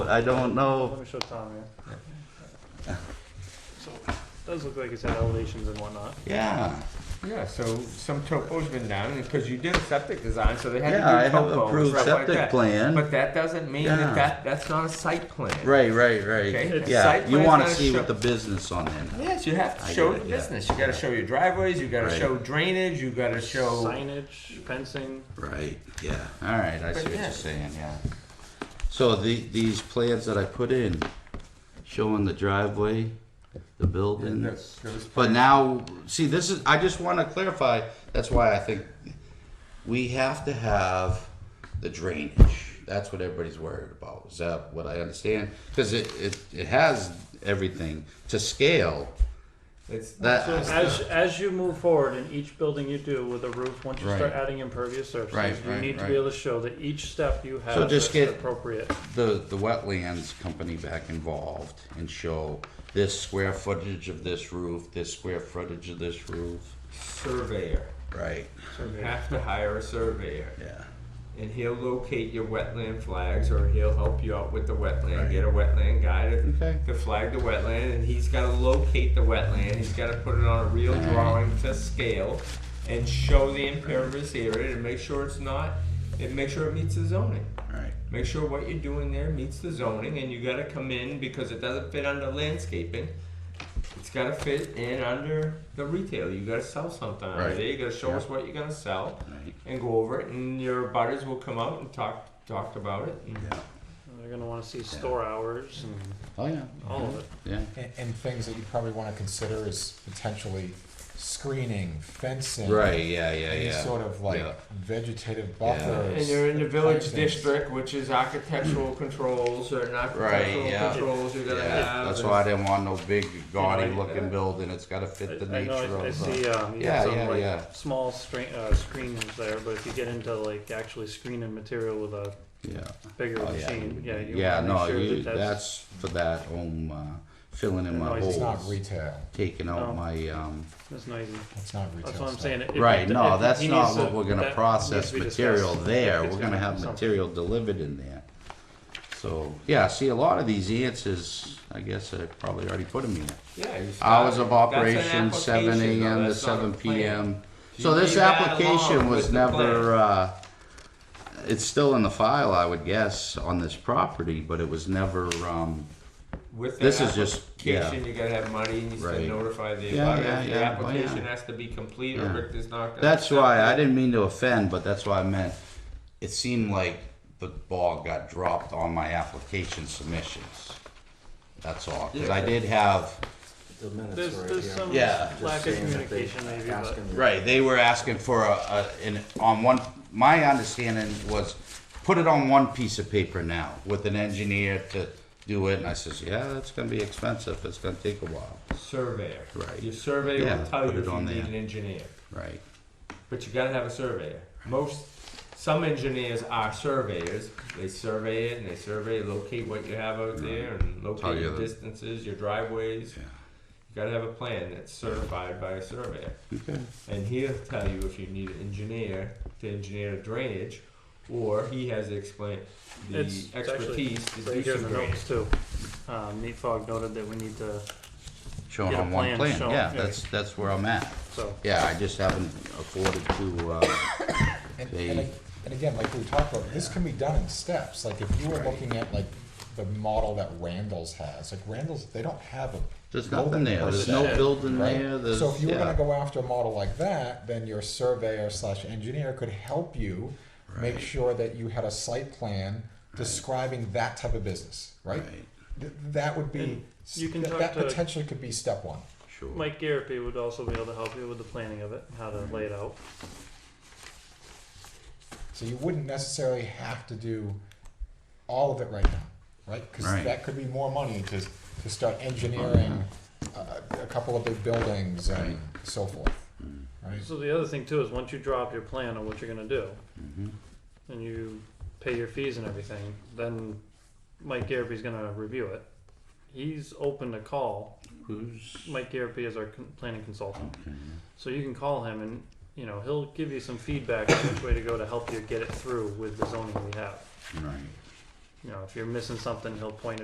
I don't know. Let me show Tom, yeah. So, does look like it's had elevations and whatnot. Yeah, Yeah, so some topo's been done, because you did a septic design, so they had to do topo. yeah, I have and approved stuff like septic that. plan. But that doesn't mean Yeah. that that, that's not a site plan. Right, right, Okay, right. it's Yeah, site you plan's wanna not a see show- what the business on there. Yes, you I have to get show it, the yeah. business, you gotta show your driveways, you gotta Right. show drainage, you gotta show. Signage, fencing. Right, yeah, all right, I see But what yeah. you're saying, yeah. So the, these plans that I put in, showing the driveway, the building. That's- those- But now, see, this is, I just want to clarify, that's why I think we have to have the drainage. That's what everybody's worried about. Is that what I understand? Because it, it, it has everything to scale. It's, So That, as, as you move forward in each building you do with a roof, once you Right. start adding impervious Right, surfaces, you right, need to right. be able to show that each step you So have just is get- appropriate. the, the wetlands company back involved and show this square footage of this roof, this square footage of this roof. surveyor, Right, so you have to hire a surveyor. yeah. and he'll locate your wetland flags or he'll help you out with the wetland. Right. Get a wetland guy to, Okay. to flag the wetland, and he's got to locate the wetland. He's got to put it on a real Alright. drawing to scale and show the impervious area and make sure it's not, and make sure it meets the zoning. Right, Make sure what you're doing there meets the zoning, and you got to come in because it doesn't fit under landscaping. It's got to fit in under the retail. You got to sell something out Right. there. You got to show Yeah. us what you're gonna sell right, and go over it, and your butters will come out and talk talked about it. And yeah. And They're gonna wanna see store hours and Oh, yeah, all of it. yeah. And, and things that you probably want to consider is potentially screening, fencing. Right, yeah, yeah, Any yeah. sort of like Yeah. vegetative buffers. And you're in the type village things. district, which is architectural controls or not Mm. Right, architectural yeah. controls you're gonna Yeah, have. that's and- why I didn't want no big gaudy Yeah. looking building, it's gotta fit the I- I know, nature I- I of see, the. um, you Yeah, have yeah, some yeah. like small screen, uh, screens there, but if you get into like actually screening material with a Yeah, bigger oh, machine, yeah, yeah, you yeah, wanna no, make sure you, that that's that's. for that home, uh, filling in my Noise. It's not holes, retail. taking No. out my, um, That's noisy. It's not retail. That's what I'm stuff. saying. If- right, if- no, if that's he not needs to- what we're that gonna needs process to be discussed, material there, if it's we're gonna have something. material delivered in there. So, yeah, see, a lot of these answers, I guess I probably already put them here. Yeah, you start- Hours of Uh, that's an operation, seven application, though, AM to that's not a seven plan. PM. You So this leave that application alone was with the plan. never, uh, it's still in the file, I would guess, on this property, but it was never, um, With this the is just- yeah. application, you gotta have money, and you Right. still notify the Yeah, abutter. yeah, The yeah, oh, application yeah. has to be complete, or Yeah. Rick is not gonna. that's accept why, it. I didn't mean to offend, but that's why I meant, it seemed like the ball got dropped on my application submissions. That's all, cause I did have, The minutes There's, are right there's here. some Yeah. lack of Saying that they communication maybe, ask but him to- right, they were asking for a, a, an, on one, my understanding was, put it on one piece of paper now with an engineer to do it, and I says, yeah, that's gonna be expensive, it's gonna take a while, Surveyor. Right. Your surveyor Yeah, will tell put you it if you on need there. an engineer. right? But you gotta have a surveyor. Most, some engineers are surveyors. They survey it and they survey, locate what you have out there and Tell locate you your the- distances, your driveways. Yeah. You gotta have a plan that's certified by a surveyor. Okay. And he'll tell you if you need an engineer to engineer drainage, or he has the explain, the It's- it's actually expertise to right do here some in the drainage. notes too. Um, Nate Fogg noted that we need to, Shown Get a on one plan plan, shown, yeah, yeah. that's, that's where I'm at. so. Yeah, I just haven't afforded to, uh, And, They- and, ag- and again, like we talked about, this can be done in steps. Like if you were looking at like the model that Randall's has, like Randall's, they don't have a. there's building nothing there, per there's se, no building right? there, there's, So if you were gonna yeah. go after a model like that, then your surveyor slash engineer could help you make Right. sure that you had a site plan describing that type of business, right? Right, Th- That would be, And you can that- talk that to- potentially could be step one. sure. Mike Garapi would also be able to help you with the planning of it, and how to lay it out. So you wouldn't necessarily have to do all of it right now, right? Because Right. Mm-hmm. that could be more money to, to start engineering a, a couple of big buildings and so forth, Mm-hmm. right? So the other thing too is once you draw up your plan on what you're gonna do, Mhm. and you pay your fees and everything, then Mike Garapi's gonna review it. He's open to call. Who's? Mike Garapi is our con- planning consultant, okay, so you can call him and you know he'll give you some feedback on which way to go to help you get it through with the zoning we have. Right, you know, if you're missing something, he'll point it